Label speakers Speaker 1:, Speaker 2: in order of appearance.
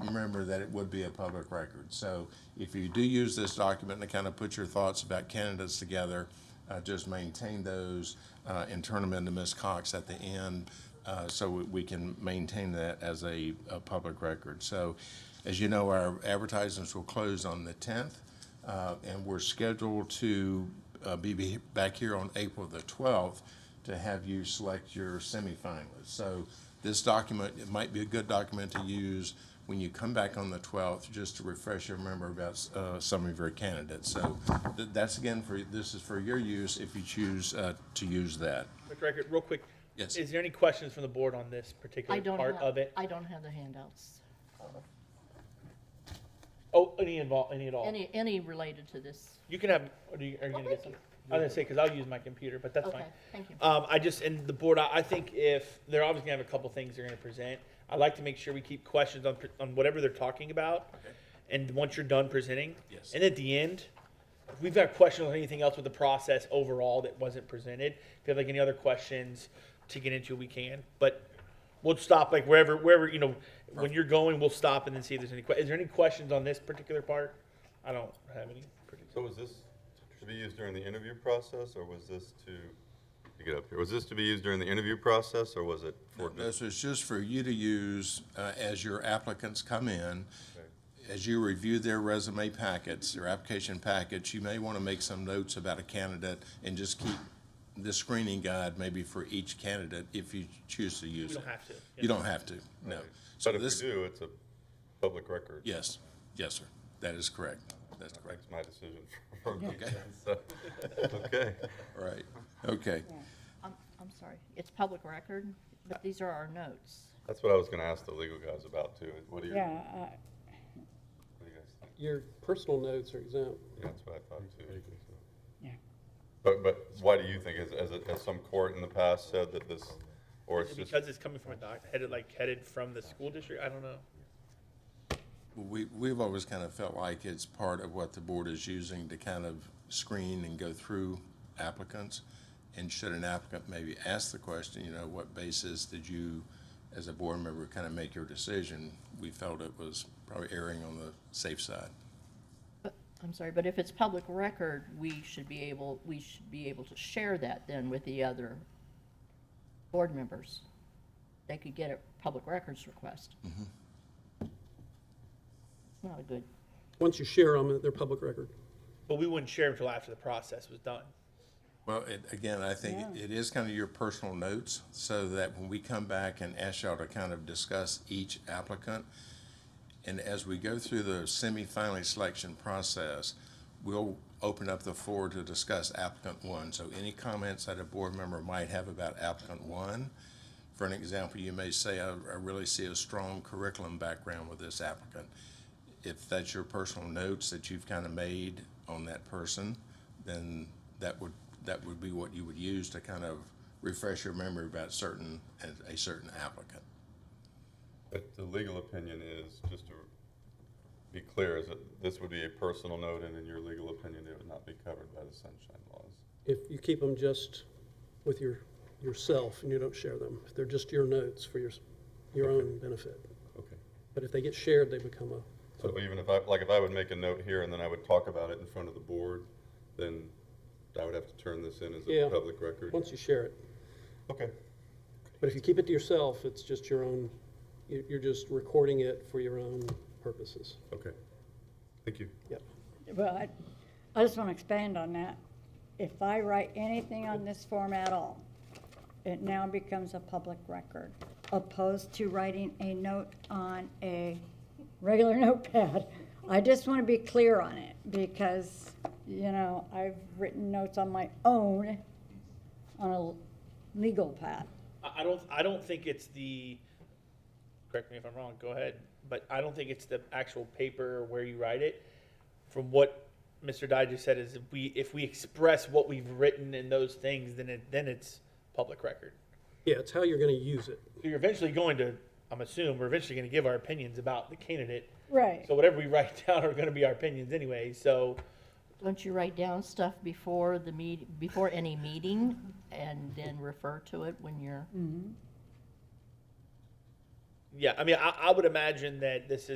Speaker 1: remember that it would be a public record. So if you do use this document to kind of put your thoughts about candidates together, uh, just maintain those uh, and turn them into Ms. Cox at the end uh, so we- we can maintain that as a, a public record. So as you know, our advertisements will close on the 10th, uh, and we're scheduled to uh, be be back here on April the 12th to have you select your semifinalists. So this document, it might be a good document to use when you come back on the 12th, just to refresh your memory about uh, some of your candidates. So th- that's again for, this is for your use if you choose uh, to use that.
Speaker 2: Mr. Reichert, real quick.
Speaker 1: Yes.
Speaker 2: Is there any questions from the board on this
Speaker 3: I
Speaker 2: particular
Speaker 3: don't
Speaker 2: part
Speaker 3: have-
Speaker 2: of it?
Speaker 3: I don't have the handouts,
Speaker 2: Oh, any involved, any at all?
Speaker 3: any, any related to this.
Speaker 2: You can have, or do you, are you gonna get
Speaker 3: Oh, thank
Speaker 2: some? I was gonna say, cause I'll use my computer, but that's fine.
Speaker 3: Okay, thank you.
Speaker 2: Um, I just, and the board, I, I think if, they're obviously gonna have a couple things they're gonna present. I like to make sure we keep questions on, pre- on whatever they're talking about. And once you're done presenting.
Speaker 1: Yes.
Speaker 2: And at the end, if we've got questions on anything else with the process overall that wasn't presented, if you have like any other questions to get into, we can. But we'll stop like wherever, wherever, you know, when you're going, we'll stop and then see if there's any que- is there any questions on this particular part? I don't have any particular.
Speaker 4: So was this to be used during the interview process, or was this to, you get up here, was this to be used during the interview process, or was it for?
Speaker 1: This is just for you to use uh, as your applicants come in. As you review their resume packets, their application packets, you may want to make some notes about a candidate and just keep the screening guide maybe for each candidate if you choose to use
Speaker 2: You
Speaker 1: it.
Speaker 2: don't have to.
Speaker 1: You don't have to, no. So
Speaker 4: But if we
Speaker 1: this-
Speaker 4: do, it's a public record.
Speaker 1: Yes, yes, sir. That is correct. That's correct.
Speaker 4: That's my decision. So, Okay.
Speaker 1: All right. Okay.
Speaker 3: I'm, I'm sorry, it's public record, but these are our notes.
Speaker 4: That's what I was gonna ask the legal guys about too. What do you, what
Speaker 5: Yeah, I-
Speaker 4: do you guys think?
Speaker 6: Your personal notes are exempt.
Speaker 4: Yeah, That's what I thought too. so.
Speaker 5: Yeah.
Speaker 4: But, but why do you think, as, as, has some court in the past said that this, or it's just,
Speaker 2: Because it's coming from a doc, headed, like, headed from the school district, I don't know.
Speaker 1: We, we've always kind of felt like it's part of what the board is using to kind of screen and go through applicants. And should an applicant maybe ask the question, you know, what basis did you, as a board member, kind of make your decision? We felt it was probably erring on the safe side.
Speaker 3: But- I'm sorry, but if it's public record, we should be able, we should be able to share that then with the other board members. They could get a public records request.
Speaker 2: Mm-hmm.
Speaker 3: It's not a good,
Speaker 6: Once you share them, they're public record.
Speaker 2: But we wouldn't share until after the process was done.
Speaker 1: Well, it, again, I think it is kind of your personal notes, so that when we come back and ask y'all to kind of discuss each applicant, and as we go through the semi-finalist selection process, we'll open up the floor to discuss applicant one. So any comments that a board member might have about applicant one, for an example, you may say, I, I really see a strong curriculum background with this applicant. If that's your personal notes that you've kind of made on that person, then that would, that would be what you would use to kind of refresh your memory about certain, a certain applicant.
Speaker 4: but the legal opinion is, just to be clear, is that this would be a personal note, and in your legal opinion, it would not be covered by the sunshine laws.
Speaker 6: If you keep them just with your, yourself and you don't share them, they're just your notes for your, your own benefit.
Speaker 4: Okay.
Speaker 6: But if they get shared, they become a,
Speaker 4: So even if I, like, if I would make a note here and then I would talk about it in front of the board, then I would have to turn this in as a
Speaker 6: Yeah.
Speaker 4: public record?
Speaker 6: once you share it.
Speaker 4: Okay,
Speaker 6: But if you keep it to yourself, it's just your own, you- you're just recording it for your own purposes.
Speaker 4: okay. Thank you.
Speaker 6: Yep.
Speaker 5: well, I, I just want to expand on that. If I write anything on this form at all, it now becomes a public record, opposed to writing a note on a regular notepad. I just want to be clear on it, because, you know, I've written notes on my own on a legal pad.
Speaker 2: I, I don't, I don't think it's the, correct me if I'm wrong, go ahead, but I don't think it's the actual paper or where you write it. From what Mr. Dye just said is if we, if we express what we've written in those things, then it, then it's public record.
Speaker 6: Yeah, it's how you're gonna use it.
Speaker 2: So You're eventually going to, I'm assuming, we're eventually gonna give our opinions about the candidate.
Speaker 5: Right.
Speaker 2: So whatever we write down are gonna be our opinions anyway, so
Speaker 3: don't you write down stuff before the meet, before any meeting and then refer to it when you're?
Speaker 2: Yeah, I mean, I, I would imagine that this is.